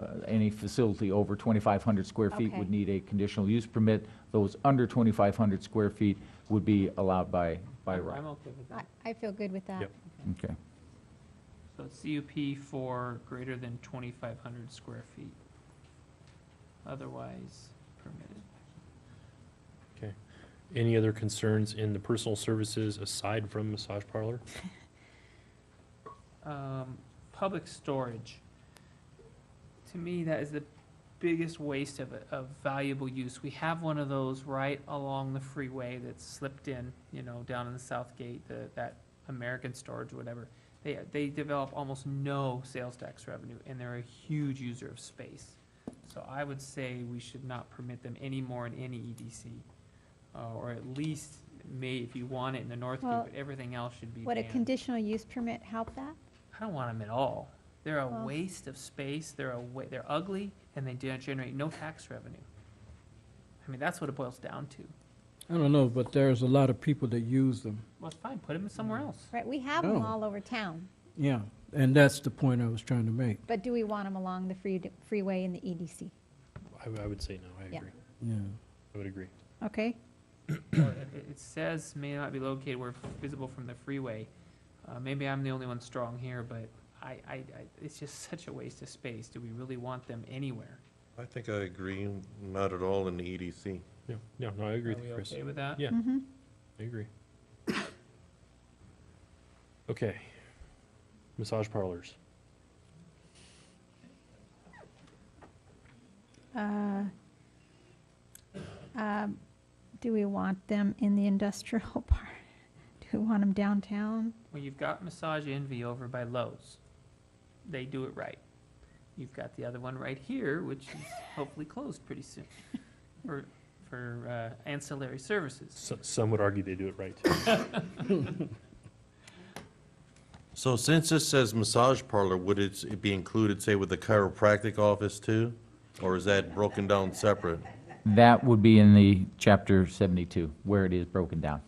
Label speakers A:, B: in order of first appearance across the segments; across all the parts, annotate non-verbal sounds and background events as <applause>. A: uh, any facility over 2,500 square feet
B: Okay.
A: would need a conditional use permit. Those under 2,500 square feet would be allowed by, by
C: I'm-
A: right.
C: I'm okay with
B: I-
C: that.
B: I feel good with that.
D: Yep.
A: Okay.
C: So it's CUP for greater than 2,500 square feet. Otherwise permitted.
D: Okay. Any other concerns in the personal services aside from massage parlor?
C: Um, Public storage. To me, that is the biggest waste of, of valuable use. We have one of those right along the freeway that's slipped in, you know, down in the South Gate, the, that American Storage, or whatever. They, they develop almost no sales tax revenue, and they're a huge user of space. So I would say we should not permit them any more in any EDC, uh, or at least may, if you want it in the North Gate,
B: Well,
C: but everything else should be
B: Would a
C: banned.
B: conditional use permit help that?
C: I don't want them at all. They're a
B: Well-
C: waste of space. They're a wa- they're ugly, and they don't generate no tax revenue. I mean, that's what it boils down to.
E: I don't know, but there's a lot of people that use them.
C: Well, it's fine. Put them somewhere else.
B: Right, we have them
E: No.
B: all over town,
E: Yeah, and that's the point I was trying to make.
B: but do we want them along the free- freeway in the E EDC?
D: I, w- I would say no, I
B: Yeah.
D: agree.
E: Yeah.
D: I would agree.
B: Okay?
C: Or it, it- it says may not be located where visible from the freeway. Uh, maybe I'm the only one strong here, but I, I, I, it's just such a waste of space. Do we really want them anywhere?
F: I think I agree, not at all in the E EDC.
D: No, no, no, I agree
C: Are
D: with
C: we
D: you, Chris.
C: okay with that?
D: Yeah.
B: Mhm.
D: I agree. Okay. Massage parlors.
B: Uh, um, Do we want them in the industrial <laughs> park? Do we want them downtown?
C: Well, you've got Massage Envy over by Lowe's. They do it right. You've got the other one right here, which <laughs> is hopefully closed pretty soon for, for uh, ancillary services.
D: So, some would argue they do it right.
F: So since this says massage parlor, would it s- be included, say, with the chiropractic office too? Or is that broken down separate?
A: That would be in the chapter 72, where it is broken down.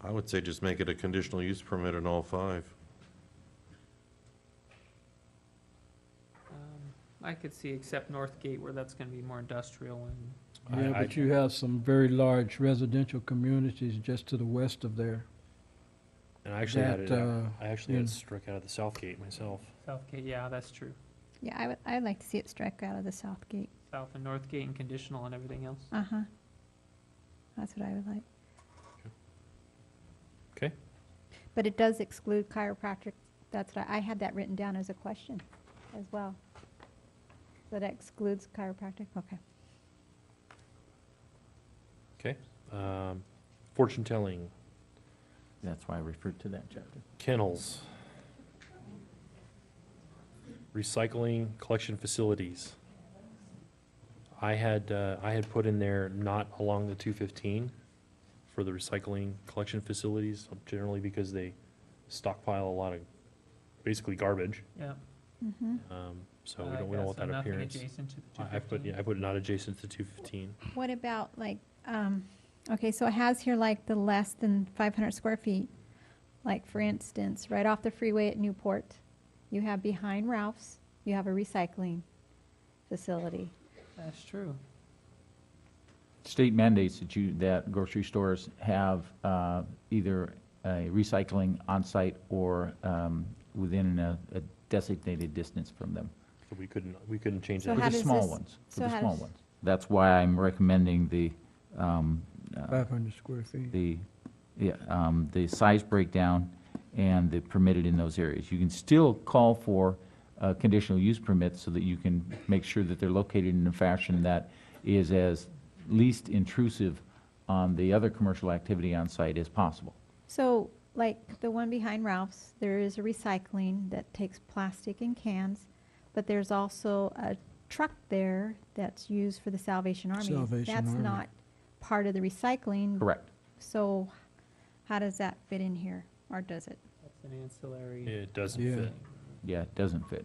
F: I would say just make it a conditional use permit in all five.
C: Um, I could see except North Gate where that's going to be more industrial and
D: I-
E: Yeah,
D: I-
E: but you have some very large residential communities just to the west of there.
D: And I actually had it,
E: That,
D: uh,
E: uh,
D: I actually had it
E: yeah.
D: struck out of the south gate myself.
C: Southgate, yeah, that's true.
B: Yeah, I would, I'd like to see it strike out of the south gate.
C: South and North Gate and conditional and everything else.
B: Uh-huh. That's what I would like.
D: Okay.
B: But it does exclude chiropractic, that's what I, I had that written down as a question as well. So that excludes chiropractic, okay.
D: Um, fortune telling,
A: That's why I referred to that chapter.
D: kennels, recycling collection facilities. I had, uh, I had put in there not along the two fifteen for the recycling collection facilities, generally because they stockpile a lot of basically garbage.
C: Yeah.
B: Mhm.
D: Um, so
C: Uh, I
D: we
C: like
D: don't, we don't want
C: Oh, so
D: that
C: nothing
D: appearance.
C: adjacent to the
D: I I put,
C: 215.
D: yeah, I put not adjacent to two fifteen.
B: What about like, um, okay, so it has here like the less than five hundred square feet. Like for instance, right off the freeway at Newport, you have behind Ralph's, you have a recycling facility.
C: That's true.
A: State mandates that you, that grocery stores have uh, either a recycling on-site or um, within a a designated distance from them.
D: So we couldn't, we couldn't change
B: So
A: For
D: that.
B: how
A: the
B: does
A: small
B: this-
A: ones, for
B: so
A: the
B: how
A: small
B: does-
A: ones. That's why I'm recommending the, um, uh,
E: Five hundred square feet.
A: the, yeah, um, the size breakdown and the permitted in those areas. You can still call for uh, conditional use permits so that you can make sure that they're located in a fashion that is as least intrusive on the other commercial activity on site as possible.
B: So, like the one behind Ralph's, there is a recycling that takes plastic and cans, but there's also a truck there that's used for the Salvation Army.
E: Salvation
B: That's
E: Army.
B: not part of the recycling.
A: Correct.
B: So how does that fit in here, or does it?
C: That's an ancillary.
D: It doesn't
E: Yeah.
D: fit.
A: Yeah, it doesn't fit.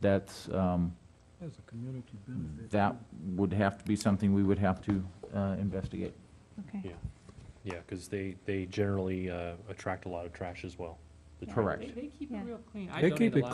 A: That's, um,
E: That's a community benefit.
A: that would have to be something we would have to uh, investigate.
B: Okay.
D: Yeah, yeah, because they, they generally uh, attract a lot of trash as well. the
B: Yeah.
D: trash.
A: Correct.
C: They they keep it
B: Yeah.
C: real clean. I
E: They keep
C: donate a
E: it
C: lot